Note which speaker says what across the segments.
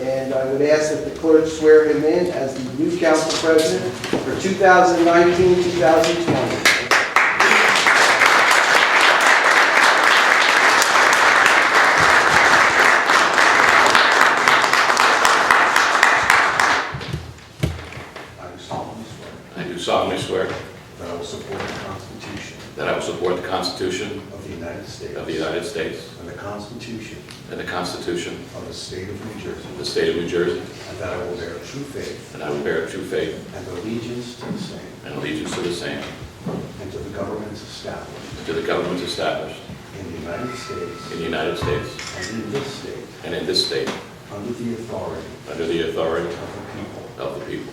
Speaker 1: and I would ask that the clerk swear him in as the new council president for 2019-2020.
Speaker 2: I do solemnly swear
Speaker 3: I do solemnly swear
Speaker 2: that I will support the Constitution
Speaker 3: that I will support the Constitution
Speaker 2: of the United States.
Speaker 3: of the United States
Speaker 2: And the Constitution
Speaker 3: and the Constitution
Speaker 2: of the State of New Jersey.
Speaker 3: of the State of New Jersey,
Speaker 2: And that I will bear true faith
Speaker 3: and I will bear true faith
Speaker 2: and allegiance to the same
Speaker 3: and allegiance to the same,
Speaker 2: and to the governments established
Speaker 3: and to the governments established
Speaker 2: in the United
Speaker 3: in
Speaker 2: States
Speaker 3: the United States
Speaker 2: and in this state
Speaker 3: and in this state,
Speaker 2: under the authority
Speaker 3: under the authority
Speaker 2: of the people.
Speaker 3: of the people.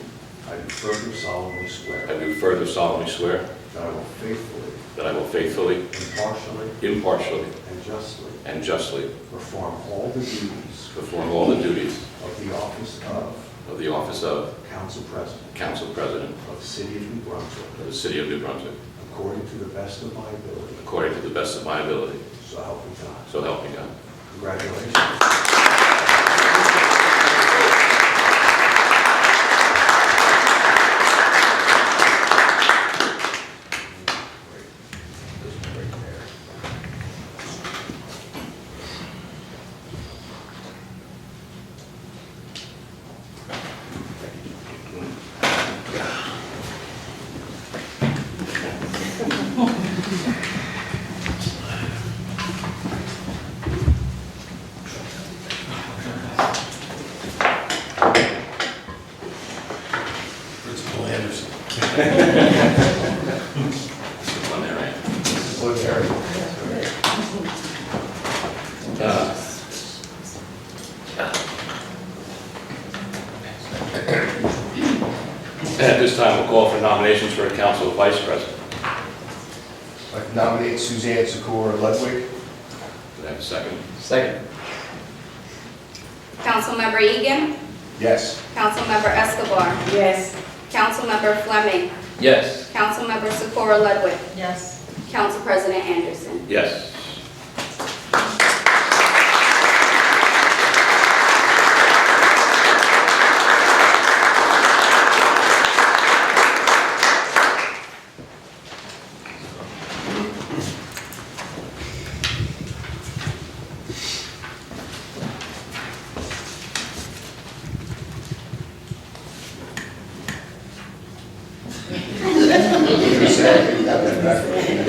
Speaker 2: I do further solemnly swear
Speaker 3: I do further solemnly swear
Speaker 2: that I will faithfully,
Speaker 3: that I will faithfully,
Speaker 2: impartially,
Speaker 3: impartially,
Speaker 2: and justly
Speaker 3: and justly
Speaker 2: perform all the duties
Speaker 3: perform all the duties
Speaker 2: of the office of
Speaker 3: of the office of
Speaker 2: Council President
Speaker 3: Council President
Speaker 2: of the City of New Brunswick
Speaker 3: of the City of New Brunswick,
Speaker 2: According to the best of my ability,
Speaker 3: according to the best of my ability,
Speaker 2: so help me God.
Speaker 3: so help me God.
Speaker 2: Congratulations.
Speaker 4: Principal Anderson.
Speaker 3: This is one there, right?
Speaker 2: Look, Harry.
Speaker 3: Uh, At this time, we'll call for nominations for a council vice president.
Speaker 4: I nominate Suzanne Secor Ludwig.
Speaker 3: Do I have a second?
Speaker 5: Second.
Speaker 6: Councilmember Egan.
Speaker 4: Yes.
Speaker 6: Councilmember Escobar.
Speaker 7: Yes.
Speaker 6: Councilmember Fleming.
Speaker 5: Yes.
Speaker 6: Councilmember Socorro Ludwig.
Speaker 7: Yes.
Speaker 6: Council President Anderson.
Speaker 3: Yes.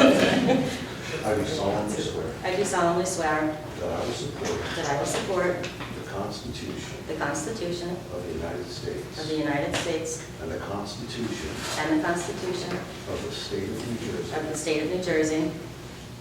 Speaker 2: I do solemnly swear
Speaker 7: I do solemnly swear
Speaker 2: that I will support
Speaker 7: that I will support
Speaker 2: the Constitution
Speaker 7: the Constitution
Speaker 2: of the United
Speaker 7: of the
Speaker 2: States
Speaker 7: United States
Speaker 2: and the Constitution
Speaker 7: and the Constitution
Speaker 2: of the State of New
Speaker 7: of the
Speaker 2: Jersey,
Speaker 7: State of New Jersey,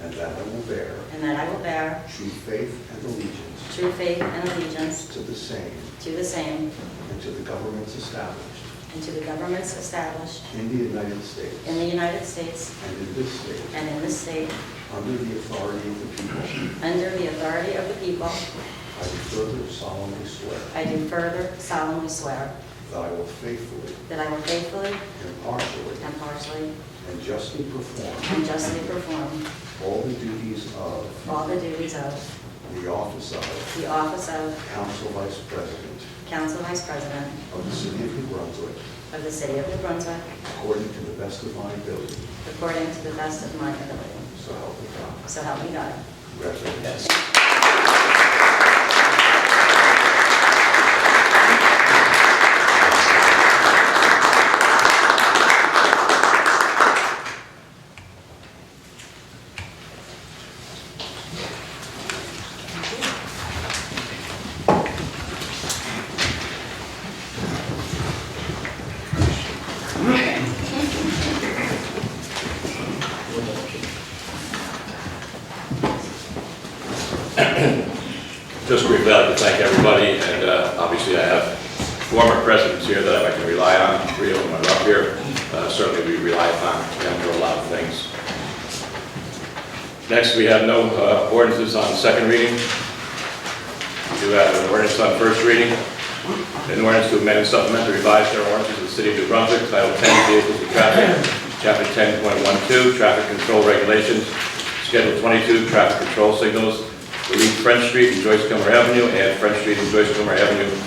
Speaker 2: and that I will bear
Speaker 7: and that I will bear
Speaker 2: true faith and allegiance
Speaker 7: true faith and allegiance
Speaker 2: to the same
Speaker 7: to the same
Speaker 2: and to the governments established
Speaker 7: and to the governments established
Speaker 2: in the United States
Speaker 7: in the United States
Speaker 2: and in this state,
Speaker 7: and in this state,
Speaker 2: under the authority of the people,
Speaker 7: under the authority of the people,
Speaker 2: I do further solemnly swear
Speaker 7: I do further solemnly swear
Speaker 2: that I will faithfully,
Speaker 7: that I will faithfully,
Speaker 2: impartially,
Speaker 7: impartially,
Speaker 2: and justly perform
Speaker 7: and justly perform
Speaker 2: all the duties of
Speaker 7: all the duties of
Speaker 2: the office of
Speaker 7: the office of
Speaker 2: Council Vice President
Speaker 7: Council Vice President
Speaker 2: of the City of New Brunswick,
Speaker 7: of the City of New Brunswick,
Speaker 2: according to the best of my ability,
Speaker 7: According to the best of my ability.
Speaker 2: so help me God.
Speaker 7: So help me God.
Speaker 2: Congratulations.
Speaker 3: Just briefly, I'd like to thank everybody, and uh, obviously I have former presidents here that I can rely on, three of them are up here. Uh, Certainly we rely upon them for a lot of things. Next, we have no uh, ordinances on second reading. We do have an ordinance on first reading. An ordinance to amend and supplement the revised general ordinances of the City of New Brunswick, Title 10, Vehicles and Traffic, Chapter 10.12, Traffic Control Regulations, Schedule 22, Traffic Control Signals, delete French Street and Joyce Comer Avenue, add French Street and Joyce Comer Avenue